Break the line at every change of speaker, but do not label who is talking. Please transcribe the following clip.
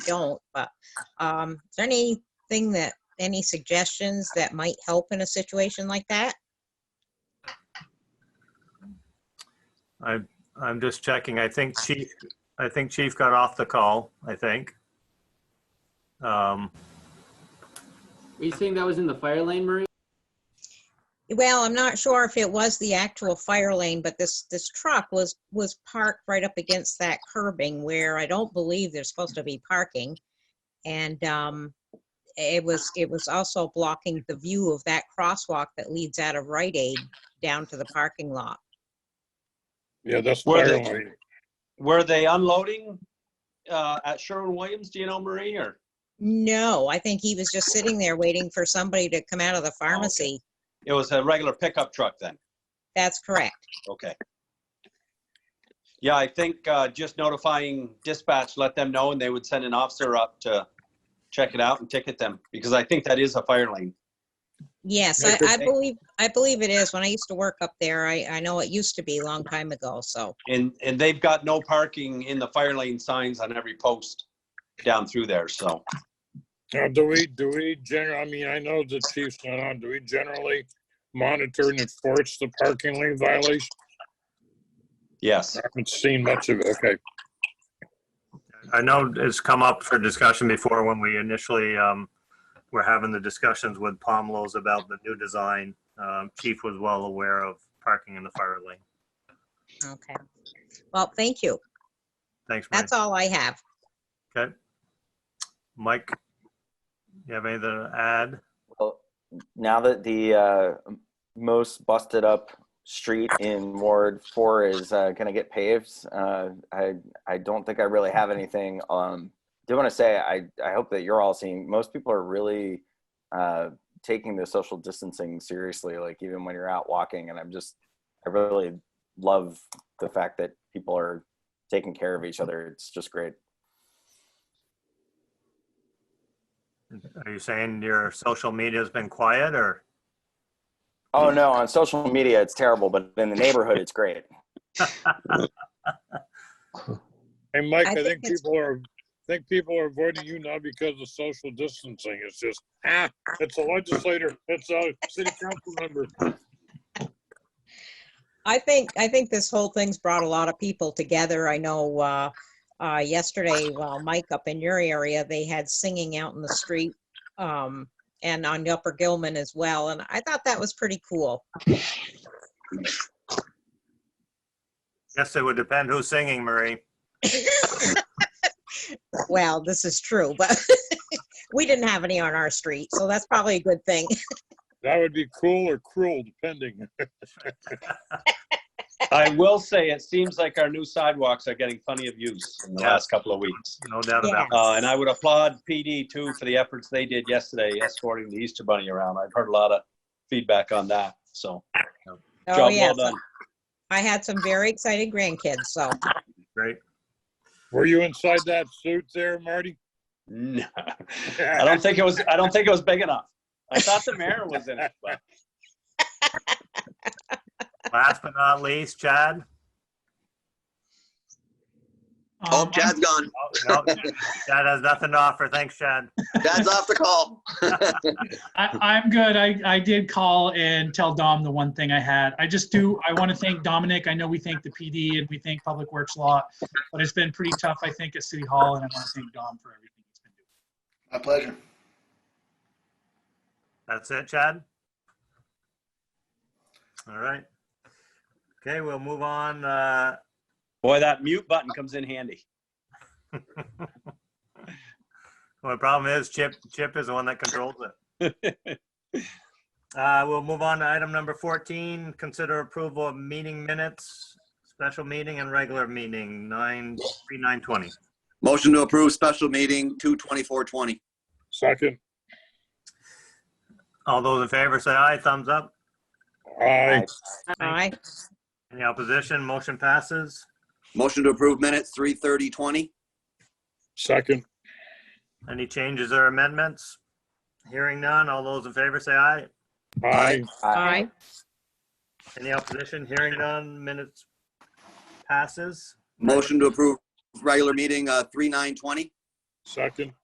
don't, but, um, is there anything that, any suggestions that might help in a situation like that?
I, I'm just checking. I think Chief, I think Chief got off the call, I think. Um,
Are you saying that was in the fire lane, Marie?
Well, I'm not sure if it was the actual fire lane, but this, this truck was, was parked right up against that curbing where I don't believe there's supposed to be parking. And, um, it was, it was also blocking the view of that crosswalk that leads out of Rite Aid down to the parking lot.
Yeah, that's
Were
fire
they-
lane.
Were they unloading uh, at Sherwin-Williams? Do you know, Marie, or?
No, I think he was just sitting there waiting for somebody to come out of the pharmacy.
It was a regular pickup truck then?
That's correct.
Okay. Yeah, I think uh, just notifying dispatch, let them know, and they would send an officer up to check it out and ticket them, because I think that is a fire lane.
Yes, I,
Yeah, 'cause
I
they-
believe, I believe it is. When I used to work up there, I, I know it used to be a long time ago, so.
And, and they've got no parking in the fire lane signs on every post down through there, so.
Now, do we, do we generally, I mean, I know the chief's not on, do we generally monitor and enforce the parking lane violation?
Yes,
I haven't seen much of it, okay.
I know it's come up for discussion before when we initially, um, were having the discussions with Palmlo's about the new design. Um, Chief was well aware of parking in the fire lane.
Okay. Well, thank you.
Thanks, Mike.
That's all I have.
Okay. Mike, you have anything to add?
Well, Oh, now that the uh, most busted up street in Ward Four is uh, going to get paved, uh, I I don't think I really have anything. Um, do want to say I I hope that you're all seeing. Most people are really uh, taking the social distancing seriously. Like even when you're out walking, and I'm just I really love the fact that people are taking care of each other. It's just great.
Are you saying your social media's been quiet or?
Oh no, on social media it's terrible, but in the neighborhood it's great.
Hey, Mike,
I
I
think
think
it's-
people are, I think people are avoiding you now because of social distancing. It's just, ah, it's a legislator, it's a city council member.
I think, I think this whole thing's brought a lot of people together. I know, uh, uh, yesterday, well, Mike up in your area, they had singing out in the street, um, and on Upper Gilman as well, and I thought that was pretty cool.
Yes, it would depend who's singing, Marie.
Well, this is true, but we didn't have any on our street, so that's probably a good thing.
That would be cool or cruel, depending.
I will say, it seems like our new sidewalks are getting plenty of use in the last couple of weeks.
No doubt about it.
Uh, and I would applaud PD too for the efforts they did yesterday escorting the Easter Bunny around. I've heard a lot of feedback on that, so.
Oh,
job well
yes,
done.
I had some very excited grandkids, so
Great.
Were you inside that suit there, Marty?
No, I don't think it was, I don't think it was big enough. I thought the mayor was in it, but
Last but not least, Chad.
Um,
Oh, Chad's gone.
Oh, no, Chad has nothing to offer. Thanks, Chad.
Chad's off the call.
I, I'm good. I, I did call and tell Dom the one thing I had. I just do, I want to thank Dominic. I know we thank the PD and we thank Public Works a lot, but it's been pretty tough, I think, at City Hall, and I want to thank Dom for everything he's been doing.
My pleasure.
That's it, Chad? All right. Okay, we'll move on. uh,
boy, that mute button comes in handy.
Well, the problem is Chip, Chip is the one that controls it. Uh, We'll move on to item number 14, consider approval of meeting minutes, special meeting and regular meeting, 9, 3, 9:20.
Motion to approve special meeting two twenty-four twenty.
Second,
All those in favor say aye, thumbs up.
aye.
all right.
Any opposition, motion passes.
Motion to approve minutes three thirty twenty.
Second,
Any changes or amendments? Hearing none, all those in favor say aye.
aye.
Aye.
Any opposition? Hearing none, minutes passes.
Motion to approve regular meeting, uh, three nine twenty.
Second.